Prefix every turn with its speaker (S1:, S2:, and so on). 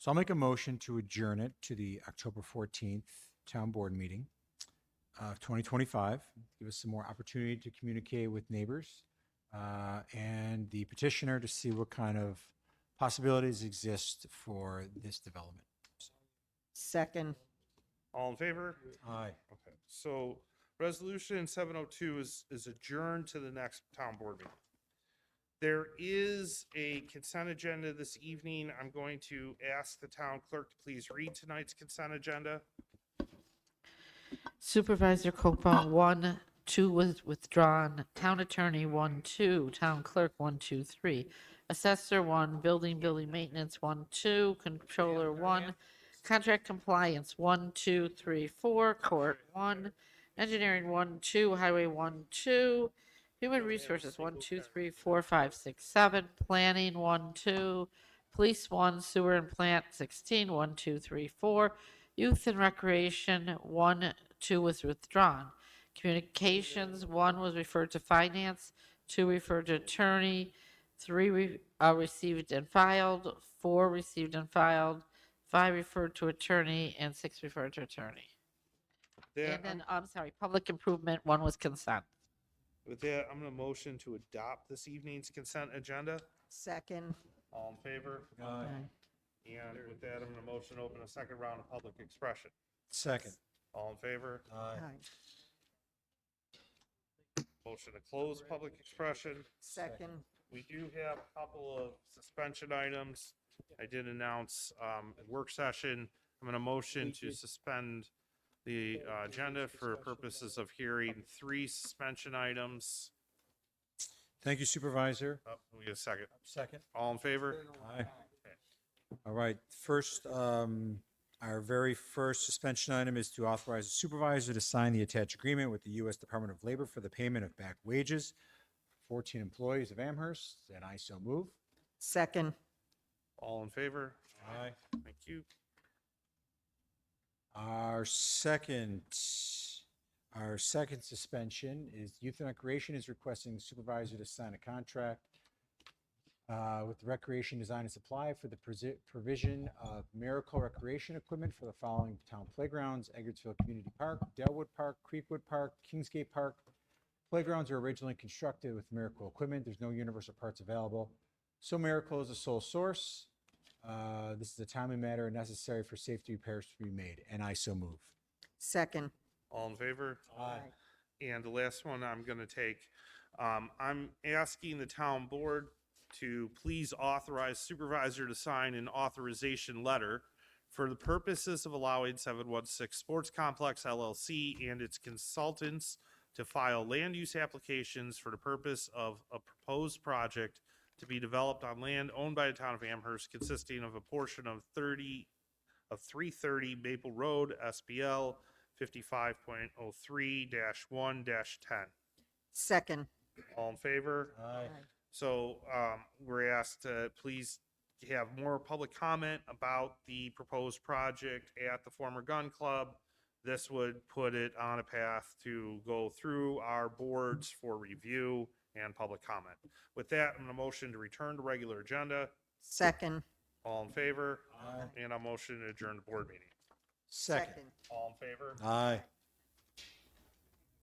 S1: So I'll make a motion to adjourn it to the October 14th Town Board meeting of 2025. Give us some more opportunity to communicate with neighbors uh, and the petitioner to see what kind of possibilities exist for this development.
S2: Second,
S3: All in favor?
S1: Aye.
S3: Okay, so resolution seven oh two is, is adjourned to the next town board meeting. There is a consent agenda this evening. I'm going to ask the town clerk to please read tonight's consent agenda.
S4: Supervisor Copal, one, two was withdrawn. Town Attorney, one, two. Town Clerk, one, two, three. Assessor, one. Building, building maintenance, one, two. Controller, one. Contract compliance, one, two, three, four. Court, one. Engineering, one, two. Highway, one, two. Human resources, one, two, three, four, five, six, seven. Planning, one, two. Police, one. Sewer and plant, 16, one, two, three, four. Youth and Recreation, one, two was withdrawn. Communications, one was referred to finance, two referred to attorney, three re- uh, received and filed, four received and filed, five referred to attorney, and six referred to attorney.
S3: There,
S4: And then, I'm sorry, public improvement, one was consent.
S3: with that, I'm gonna motion to adopt this evening's consent agenda.
S2: second,
S3: All in favor?
S1: Aye.
S3: And with that, I'm gonna motion to open a second round of public expression.
S1: Second.
S3: All in favor?
S1: Aye.
S2: aye.
S3: Motion to close public expression.
S2: second,
S3: We do have a couple of suspension items. I did announce, um, a work session. I'm gonna motion to suspend the uh, agenda for purposes of hearing three suspension items.
S1: Thank you Supervisor.
S3: Oh, we get a second.
S1: Second.
S3: All in favor?
S1: Aye. All right, first, um, our very first suspension item is to authorize the supervisor to sign the attached agreement with the U.S. Department of Labor for the payment of back wages. Fourteen employees of Amherst, and I so move.
S2: second,
S3: All in favor?
S1: Aye.
S3: Thank you.
S1: Our second, our second suspension is Youth and Recreation is requesting the supervisor to sign a contract uh, with Recreation Design and Supply for the presi- provision of miracle recreation equipment for the following town playgrounds, Edgartsville Community Park, Delwood Park, Creekwood Park, Kingsgate Park. Playgrounds were originally constructed with miracle equipment. There's no universal parts available. So Miracle is the sole source. Uh, This is a timely matter and necessary for safety repairs to be made, and I so move.
S2: second.
S3: All in favor? And the last one I'm going to take, um, I'm asking the town board to please authorize supervisor to sign an authorization letter for the purposes of allowing 716 Sports Complex LLC and its consultants to file land use applications for the purpose of a proposed project to be developed on land owned by the town of Amherst consisting of a portion of 30, of 330 Maple Road, SBL, 55.03-1-10.
S2: Second,
S3: All in favor?
S1: Aye.
S3: So um, we're asked to please have more public comment about the proposed project at the former gun club. This would put it on a path to go through our boards for review and public comment. With that, I'm going to motion to return to regular agenda.
S2: second,
S3: All in favor? And I'll motion to adjourn the board meeting.
S1: Second.
S2: second.
S3: All in favor?
S1: Aye.